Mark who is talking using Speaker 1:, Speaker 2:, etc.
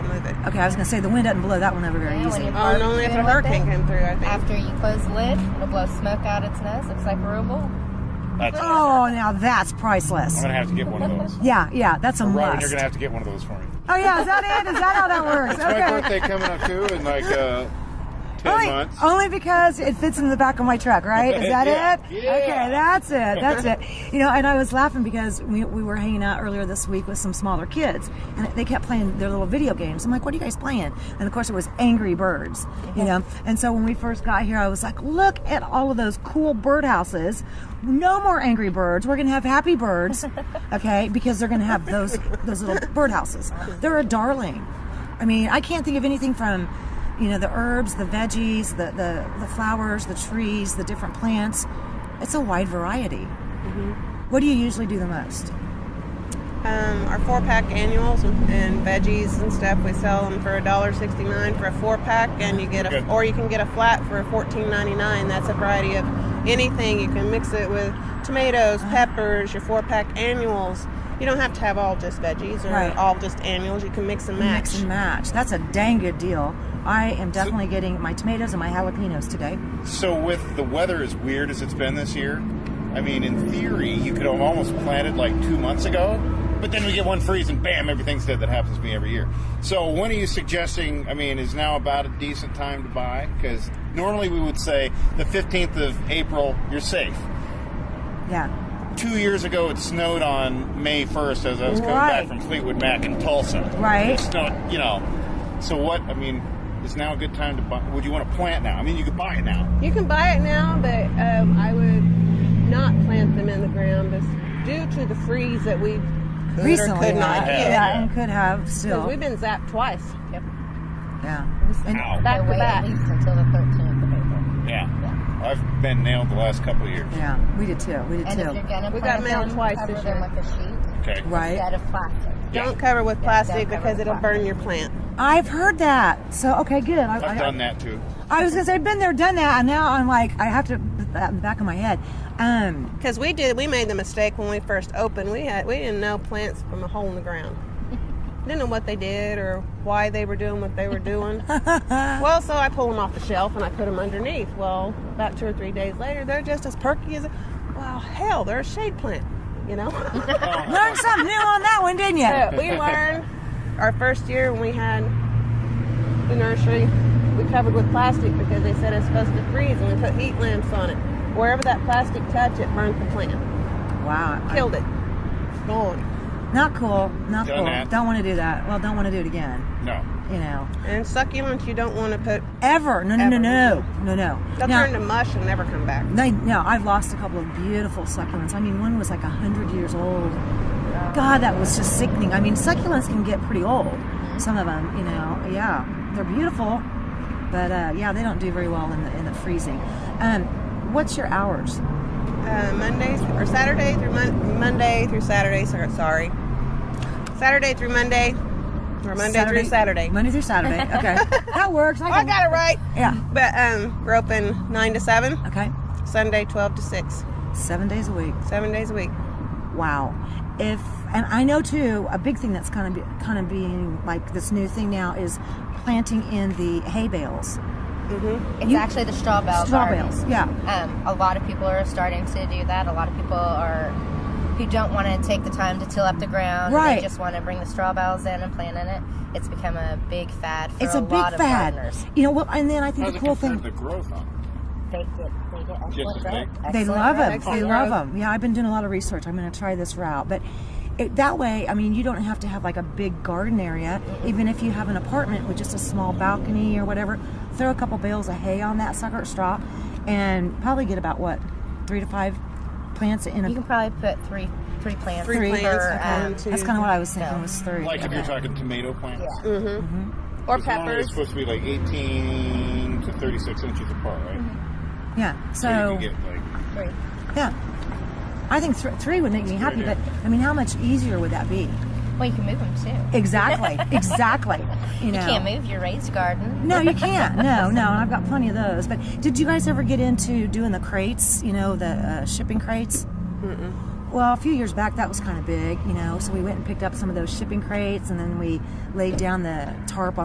Speaker 1: Okay, I was gonna say the wind doesn't blow that one over very
Speaker 2: Yeah,
Speaker 1: easy.
Speaker 2: when you
Speaker 3: Oh, and only if a hurricane came through, I think.
Speaker 2: After you close the lid, it'll blow smoke out its nose. Looks like a real bull.
Speaker 4: That's
Speaker 1: Oh, now that's
Speaker 4: I'm
Speaker 1: priceless.
Speaker 4: gonna have to get one of those.
Speaker 1: Yeah, yeah, that's a
Speaker 4: Robin, you're
Speaker 1: must.
Speaker 4: gonna have to get one of those for me.
Speaker 1: Oh yeah, is that it? Is that how that works?
Speaker 4: It's my
Speaker 1: Okay.
Speaker 4: birthday coming up too in like uh, ten
Speaker 1: Only,
Speaker 4: months.
Speaker 1: only because it fits in the back of my truck, right? Is that
Speaker 4: Yeah.
Speaker 1: it?
Speaker 4: Yeah.
Speaker 1: Okay, that's it. That's it. You know, and I was laughing because we, we were hanging out earlier this week with some smaller kids, and they kept playing their little video games. I'm like, what are you guys playing? And of course, it was Angry Birds, you know? And so when we first got here, I was like, look at all of those cool birdhouses. No more Angry Birds. We're going to have Happy Birds, okay? Because they're going to have those, those little birdhouses. They're a darling. I mean, I can't think of anything from you know the herbs the veggies the, the, the flowers the trees the different plants it's a wide variety
Speaker 3: Mm-hmm.
Speaker 1: what do you usually do the most
Speaker 3: Um, our four pack annuals and, and veggies and stuff, we sell them for $1.69 for a four pack, and you get a,
Speaker 4: Okay.
Speaker 3: or you can get a flat for $14.99. That's a variety of anything. You can mix it with tomatoes, peppers, your four pack annuals. You don't have to have all just veggies or
Speaker 1: Right.
Speaker 3: all just annuals. You can mix and match.
Speaker 1: mix and match that's a dang good deal i am definitely getting my tomatoes and my jalapenos today
Speaker 4: So with the weather as weird as it's been this year, I mean, in theory, you could have almost planted like two months ago, but then we get one freeze and bam, everything's dead. That happens to me every year. So when are you suggesting? I mean, is now about a decent time to buy? Because normally we would say the 15th of April, you're safe.
Speaker 1: yeah
Speaker 4: Two years ago, it snowed on May 1st as I was coming
Speaker 1: Right.
Speaker 4: back from Fleetwood Mac in Tulsa.
Speaker 1: Right.
Speaker 4: It snowed, you know. So what? I mean, is now a good time to buy? Would you want to plant now? I mean, you could buy it now.
Speaker 3: You can buy it now, but um, I would not plant them in the ground bes- due to the freeze that we could
Speaker 1: recently
Speaker 3: or could not
Speaker 1: yeah,
Speaker 4: yeah.
Speaker 3: get.
Speaker 1: yeah, and could have still
Speaker 3: Because we've been zapped twice. Yep.
Speaker 1: yeah And-
Speaker 4: Ow.
Speaker 2: They'll
Speaker 3: to
Speaker 2: wait
Speaker 3: back.
Speaker 2: at least until the 13th of April.
Speaker 4: Yeah. I've been nailed the last couple of years.
Speaker 1: yeah we did too we did
Speaker 2: And if
Speaker 1: too
Speaker 2: you're gonna
Speaker 3: We got
Speaker 2: plant
Speaker 3: mail
Speaker 2: them,
Speaker 3: twice
Speaker 2: cover
Speaker 3: this
Speaker 2: them
Speaker 3: year.
Speaker 2: with a sheet
Speaker 4: Okay.
Speaker 1: right
Speaker 2: instead of plastic.
Speaker 3: Don't cover with plastic
Speaker 2: don't cover
Speaker 3: because
Speaker 2: with
Speaker 3: it'll burn your plant.
Speaker 1: i've heard that so okay good I,
Speaker 4: I've done that too.
Speaker 1: I was gonna say i've been there done that and now i'm like i have to put that in the back of my head um
Speaker 3: Because we did, we made the mistake when we first opened. We had we didn't know plants from a hole in the ground. didn't know what they did or why they were doing what they were doing. well, so I pulled them off the shelf and I put them underneath. Well, about two or three days later, they're just as perky as. Well, hell, they're a shade plant, you know.
Speaker 1: learned something new on that one didn't you
Speaker 3: So we learned our first year when we had the nursery, we covered with plastic because they said it's supposed to freeze, and we put heat lamps on it. Wherever that plastic touched, it burned the plant,
Speaker 1: Wow. I-
Speaker 3: killed it, gone,
Speaker 1: Not cool. Not
Speaker 4: Done
Speaker 1: cool.
Speaker 4: that.
Speaker 1: Don't want to do that. Well, don't want to do it again.
Speaker 4: No.
Speaker 1: You know.
Speaker 3: and succulents you don't want to put.
Speaker 1: Ever. No, no, no,
Speaker 3: Ever.
Speaker 1: no. No, no.
Speaker 3: They'll
Speaker 1: Now-
Speaker 3: turn to mush and never come back.
Speaker 1: they, no, I've lost a couple of beautiful succulents. I mean, one was like 100 years old. God, that was just sickening. I mean, succulents can get pretty old.
Speaker 3: Mm-hmm.
Speaker 1: Some of them, you know. Yeah. They're beautiful. But uh, yeah, they don't do very well in the, in the freezing. Um, what's your hours?
Speaker 3: Uh, Monday or Saturday through Mon- Monday through Saturday. sor- Sorry, Saturday through Monday, or Monday through Saturday. Oh,
Speaker 1: Monday through Saturday. Okay. that works.
Speaker 3: I got it right.
Speaker 1: Yeah.
Speaker 3: But um, we're open nine to seven,
Speaker 1: Okay.
Speaker 3: Sunday twelve to six,
Speaker 1: Seven days a week.
Speaker 3: seven days a week.
Speaker 1: wow if and i know too a big thing that's kind of kind of being like this new thing now is planting in the hay bales
Speaker 2: It's
Speaker 1: You-
Speaker 2: actually the straw bale.
Speaker 1: straw
Speaker 2: gardens.
Speaker 1: bales yeah
Speaker 2: Um, a lot of people are starting to do that. A lot of people are who don't want to take the time to till up the ground.
Speaker 1: Right.
Speaker 2: They just want to bring the straw bales in and plant in it. It's become a big fad for
Speaker 1: it's
Speaker 2: a,
Speaker 1: a, big
Speaker 2: lot of
Speaker 1: fad
Speaker 2: gardeners.
Speaker 1: you know well and then i think
Speaker 4: How's
Speaker 1: the
Speaker 4: it
Speaker 1: cool
Speaker 4: compared
Speaker 1: thing
Speaker 4: to the growth on it?
Speaker 2: They get they get excellent
Speaker 4: Just as
Speaker 2: growth.
Speaker 4: big?
Speaker 1: they
Speaker 2: Excellent
Speaker 1: love
Speaker 2: growth,
Speaker 1: them. They
Speaker 2: excellent
Speaker 1: love
Speaker 2: growth.
Speaker 1: them. Yeah, I've been doing a lot of research. I'm going to try this route, but it, that way, I mean, you don't have to have like a big garden area. Even if you have an apartment with just a small balcony or whatever, throw a couple bales of hay on that sucker straw, and probably get about what three to five plants in a
Speaker 2: You can probably put three three plants.
Speaker 3: Three
Speaker 2: per,
Speaker 3: plants,
Speaker 2: um,
Speaker 3: okay.
Speaker 1: That's kind of what I was thinking
Speaker 2: Yeah.
Speaker 1: was three.
Speaker 4: Like if you're talking tomato plants.
Speaker 2: Yeah.
Speaker 3: Or
Speaker 4: Because normally It's
Speaker 3: peppers.
Speaker 4: supposed to be like 18 to 36 inches apart, right?
Speaker 1: yeah. So,
Speaker 4: So you can get like.
Speaker 2: three.
Speaker 1: yeah, I think th- three would make me happy. But
Speaker 4: idea.
Speaker 1: I mean, how much easier would that be?
Speaker 2: Well, you can move them too.
Speaker 1: Exactly. exactly. You know.
Speaker 2: You can't move your raised garden.
Speaker 1: No, you can't. No, no, and I've got plenty of those. But did you guys ever get into doing the crates? You know, the uh, shipping crates. Well, a few years back, that was kind of big, you know. So we went and picked up some of those shipping crates, and then we laid down the tarp on.